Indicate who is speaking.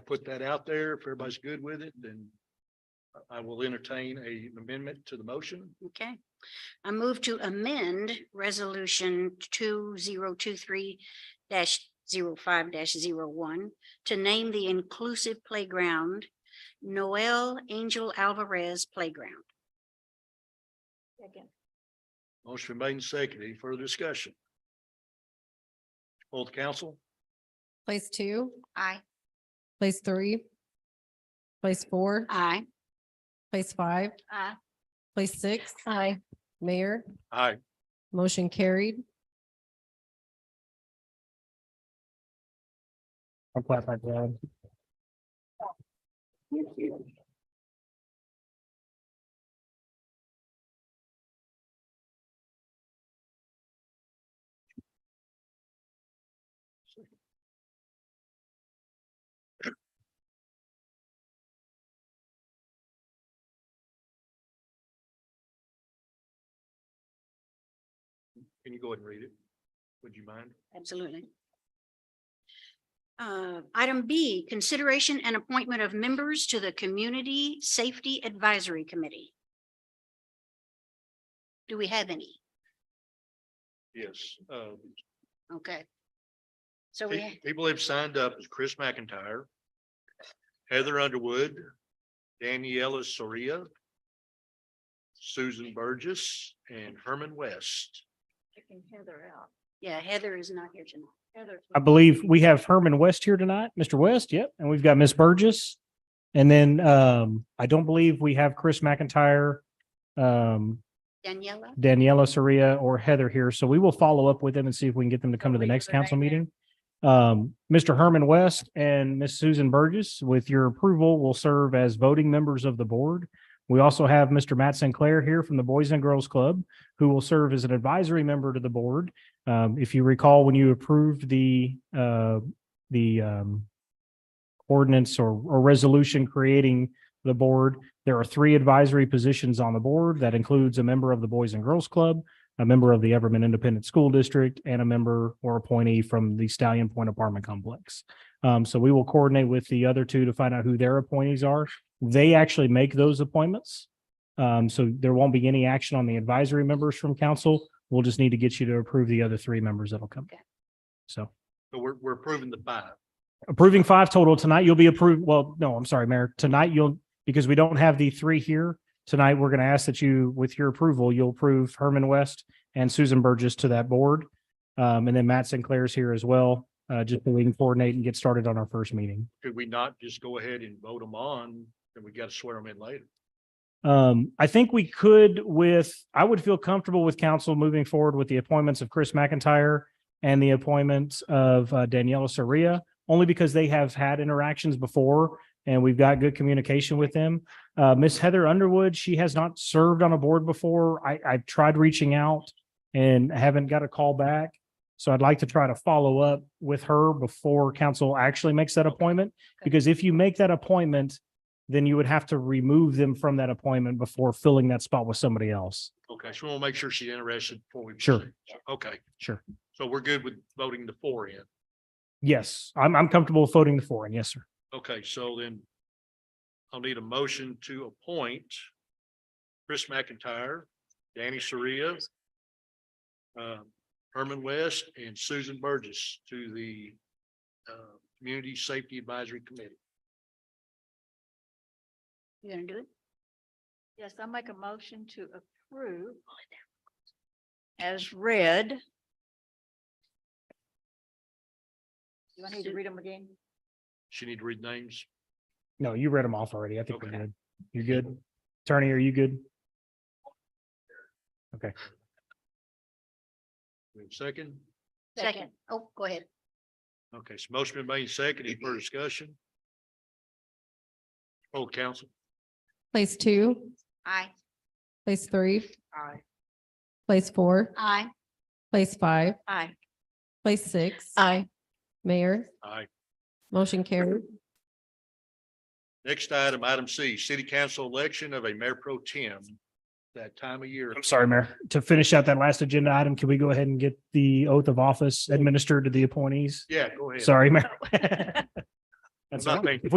Speaker 1: put that out there. If everybody's good with it, then I- I will entertain a an amendment to the motion.
Speaker 2: Okay. I move to amend resolution two zero two three dash zero five dash zero one to name the inclusive playground Noel Angel Alvarez Playground.
Speaker 3: Second.
Speaker 1: Motion made and seconded. Any further discussion? Hold the council.
Speaker 4: Place two,
Speaker 2: Aye.
Speaker 4: place three, place four,
Speaker 2: Aye.
Speaker 4: place five,
Speaker 2: Aye.
Speaker 4: place six. Aye. Mayor,
Speaker 1: Aye.
Speaker 4: motion carried.
Speaker 5: I'll clap my hand.
Speaker 1: Can you go ahead and read it? Would you mind?
Speaker 2: Absolutely. Uh, Item B, consideration and appointment of members to the Community Safety Advisory Committee. Do we have any?
Speaker 1: Yes. Uh,
Speaker 2: Okay. So we,
Speaker 1: Pe- People have signed up is Chris McIntyre, Heather Underwood, Daniela Soria, Susan Burgess, and Herman West.
Speaker 3: Taking Heather out.
Speaker 2: yeah, Heather is not here tonight.
Speaker 3: Heather's.
Speaker 5: I believe we have Herman West here tonight, Mr. West, yep, and we've got Miss Burgess. And then um, I don't believe we have Chris McIntyre, um,
Speaker 2: Daniela,
Speaker 5: Daniela Soria or Heather here, so we will follow up with them and see if we can get them to come to the
Speaker 3: Wait
Speaker 5: next
Speaker 3: for their
Speaker 5: council
Speaker 3: name.
Speaker 5: meeting. Um, Mr. Herman West and Miss Susan Burgess, with your approval, will serve as voting members of the board. We also have Mr. Matt Sinclair here from the Boys and Girls Club, who will serve as an advisory member to the board. Um, if you recall, when you approved the, uh, the, um, ordinance or, or resolution creating the board, there are three advisory positions on the board. That includes a member of the Boys and Girls Club, a member of the Everman Independent School District, and a member or appointee from the Stallion Point Apartment Complex. Um, so we will coordinate with the other two to find out who their appointees are. They actually make those appointments. Um, so there won't be any action on the advisory members from council. We'll just need to get you to approve the other three members that'll come.
Speaker 2: Okay.
Speaker 5: So
Speaker 1: So we're, we're approving the five.
Speaker 5: approving five total tonight. You'll be approved. Well, no, I'm sorry, Mayor. Tonight you'll, because we don't have the three here tonight, we're going to ask that you, with your approval, you'll approve Herman West and Susan Burgess to that board. Um, and then Matt Sinclair's here as well, uh, just so we can coordinate and get started on our first meeting.
Speaker 1: Could we not just go ahead and vote them on and we got to swear them in later?
Speaker 5: Um, I think we could with, I would feel comfortable with council moving forward with the appointments of Chris McIntyre and the appointments of uh, Daniela Soria, only because they have had interactions before and we've got good communication with them. Uh, Miss Heather Underwood, she has not served on a board before. I, I've tried reaching out and haven't got a call back. So I'd like to try to follow up with her before council actually makes that appointment. Because if you make that appointment, then you would have to remove them from that appointment before filling that spot with somebody else.
Speaker 1: Okay, so we'll make sure she's interested before we.
Speaker 5: Sure.
Speaker 1: proceed. Okay,
Speaker 5: Sure.
Speaker 1: so we're good with voting the four in.
Speaker 5: Yes, I'm, I'm comfortable with voting the four and yes, sir.
Speaker 1: Okay, so then I'll need a motion to appoint Chris McIntyre, Danny Soria, uh, Herman West and Susan Burgess to the uh, Community Safety Advisory Committee.
Speaker 2: you gonna do it?
Speaker 3: Yes, I make a motion to approve as read. Do I need to read them again?
Speaker 1: She need to read names.
Speaker 5: No, you read them off already. I think we're
Speaker 1: Okay.
Speaker 5: good. You're good. Attorney, are you good?
Speaker 1: We have a Second.
Speaker 2: Second. Oh, go ahead.
Speaker 1: Okay, so motion been made second. Any further discussion? Hold council.
Speaker 4: Place two,
Speaker 2: Aye.
Speaker 4: place three,
Speaker 3: Aye.
Speaker 4: place four,
Speaker 2: Aye.
Speaker 4: place five,
Speaker 3: Aye.
Speaker 4: place six. Aye. Mayor,
Speaker 1: Aye.
Speaker 4: motion carried.
Speaker 1: Next item, item C, City Council election of a mayor pro tem. That time of year.
Speaker 5: I'm sorry, Mayor. To finish out that last agenda item, can we go ahead and get the oath of office administered to the appointees?
Speaker 1: Yeah, go ahead.
Speaker 5: Sorry, Mayor. That's
Speaker 1: Not
Speaker 5: all
Speaker 1: me.
Speaker 5: right. If we